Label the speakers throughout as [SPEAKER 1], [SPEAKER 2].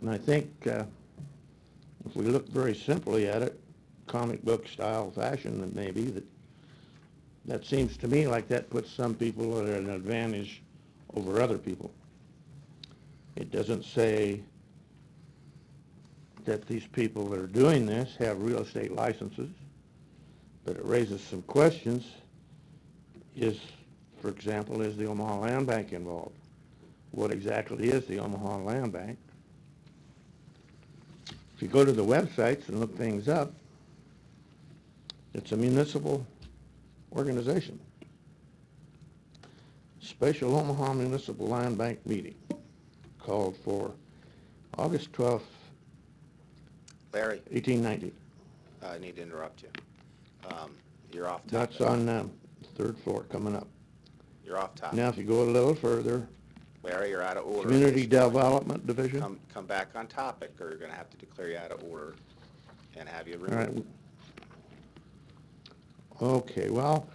[SPEAKER 1] And I think uh, if we look very simply at it, comic book style fashion, that maybe, that, that seems to me like that puts some people at an advantage over other people. It doesn't say that these people that are doing this have real estate licenses, but it raises some questions. Is, for example, is the Omaha Land Bank involved? What exactly is the Omaha Land Bank? If you go to the websites and look things up, it's a municipal organization. Special Omaha Municipal Land Bank meeting called for August 12th,
[SPEAKER 2] Larry, uh,
[SPEAKER 1] 1890.
[SPEAKER 2] I need to interrupt you. Um, You're off
[SPEAKER 1] That's
[SPEAKER 2] topic.
[SPEAKER 1] on um, the third floor coming up.
[SPEAKER 2] You're off topic.
[SPEAKER 1] Now, if you go a little further,
[SPEAKER 2] Larry, you're out of order.
[SPEAKER 1] Community Development Division. All
[SPEAKER 2] Come, come back on topic, or you're going to have to declare you out of order and have you
[SPEAKER 1] right.
[SPEAKER 2] removed.
[SPEAKER 1] Okay, well,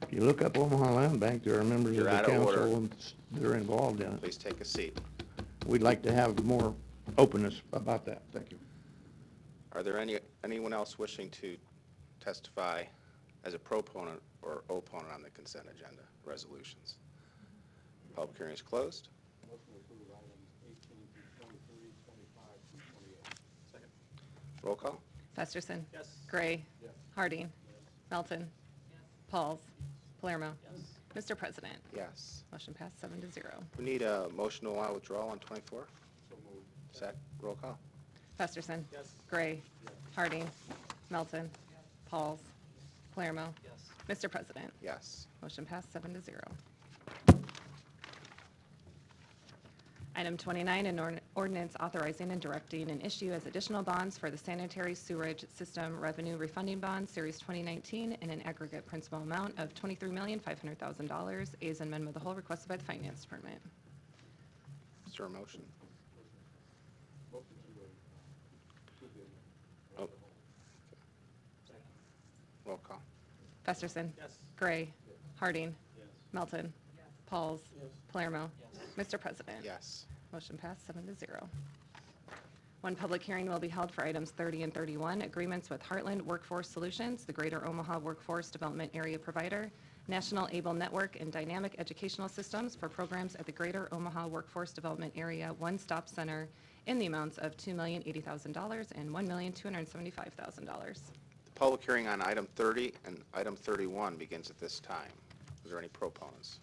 [SPEAKER 1] if you look up Omaha Land Bank, there are members of
[SPEAKER 2] You're
[SPEAKER 1] the
[SPEAKER 2] out of order.
[SPEAKER 1] council and s- that are involved in it.
[SPEAKER 2] Please take a seat.
[SPEAKER 1] We'd like to have more openness about that. Thank you.
[SPEAKER 2] Are there any, anyone else wishing to testify as a proponent or opponent on the consent agenda resolutions? Public hearing is closed. Roll call?
[SPEAKER 3] Festerson. Gray. Harding. Melton. Pauls. Palermo. Mr. President,
[SPEAKER 2] Yes.
[SPEAKER 3] motion passed seven to zero.
[SPEAKER 2] We need a motion to allow withdrawal on 24? Sec, roll call.
[SPEAKER 3] Festerson. Gray. Harding. Melton. Pauls. Palermo. Mr. President,
[SPEAKER 2] Yes.
[SPEAKER 3] motion passed seven to zero. Item 29, an ord- ordinance authorizing and directing an issue as additional bonds for the sanitary sewerage system revenue refunding bond, Series 2019, in an aggregate principal amount of $23,500,000, is an amendment of the whole requested by the Finance Department.
[SPEAKER 2] Is there a motion? Oh. Roll call.
[SPEAKER 3] Festerson. Gray. Harding. Melton. Pauls. Palermo. Mr. President.
[SPEAKER 2] Yes.
[SPEAKER 3] Motion passed, seven to zero. One public hearing will be held for items 30 and 31, agreements with Heartland Workforce Solutions, the Greater Omaha Workforce Development Area Provider, National Able Network, and Dynamic Educational Systems for programs at the Greater Omaha Workforce Development Area One Stop Center in the amounts of $2,080,000 and $1,275,000.
[SPEAKER 2] The public hearing on item 30 and item 31 begins at this time. Is there any proponents?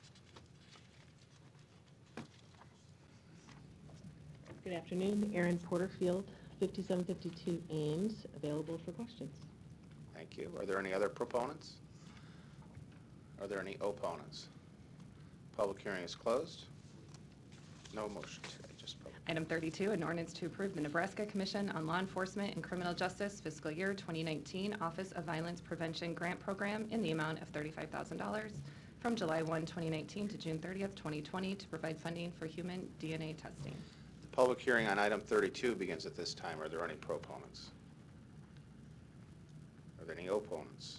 [SPEAKER 4] Good afternoon, Erin Porterfield, 5752 Ames, available for questions.
[SPEAKER 2] Thank you. Are there any other proponents? Are there any opponents? Public hearing is closed. No motion today, just public.
[SPEAKER 3] Item 32, an ordinance to approve the Nebraska Commission on Law Enforcement and Criminal Justice Fiscal Year 2019 Office of Violence Prevention Grant Program in the amount of $35,000 from July 1, 2019 to June 30th, 2020 to provide funding for human DNA testing.
[SPEAKER 2] The public hearing on item 32 begins at this time. Are there any proponents? Are there any opponents?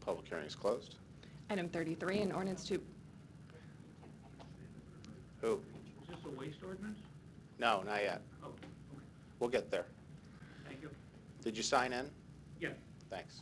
[SPEAKER 2] Public hearing is closed.
[SPEAKER 3] Item 33, an ordinance to,
[SPEAKER 2] Who?
[SPEAKER 5] Is this a waste ordinance?
[SPEAKER 2] No, not yet.
[SPEAKER 5] Oh, okay,
[SPEAKER 2] We'll get there.
[SPEAKER 5] thank you.
[SPEAKER 2] Did you sign in?
[SPEAKER 5] Yeah,
[SPEAKER 2] Thanks.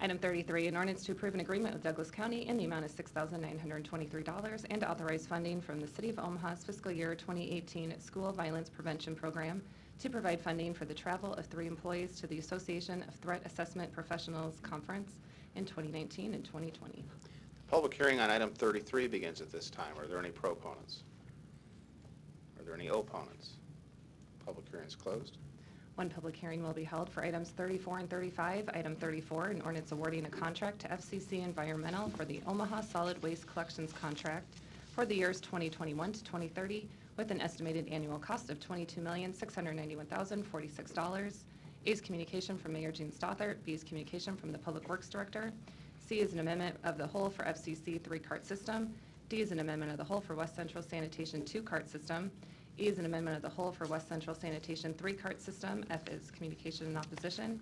[SPEAKER 3] item 33, an ordinance to approve an agreement with Douglas County in the amount of $6,923 and authorize funding from the City of Omaha's Fiscal Year 2018 School Violence Prevention Program to provide funding for the travel of three employees to the Association of Threat Assessment Professionals Conference in 2019 and
[SPEAKER 2] The
[SPEAKER 3] 2020.
[SPEAKER 2] public hearing on item 33 begins at this time. Are there any proponents? Are there any opponents? Public hearing is closed.
[SPEAKER 3] One public hearing will be held for items 34 and 35. Item 34, an ordinance awarding a contract to FCC Environmental for the Omaha Solid Waste Collections Contract for the years 2021 to 2030 with an estimated annual cost of $22,691,046. A's communication from Mayor Gene Stothart, B's communication from the Public Works Director. C is an amendment of the whole for FCC three-cart system. D is an amendment of the whole for West Central Sanitation two-cart system. E is an amendment of the whole for West Central Sanitation three-cart system. F is communication and opposition.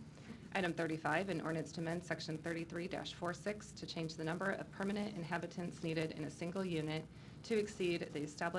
[SPEAKER 3] Item 35, an ordinance to amend Section 33-46 to change the number of permanent inhabitants needed in a single unit to exceed the established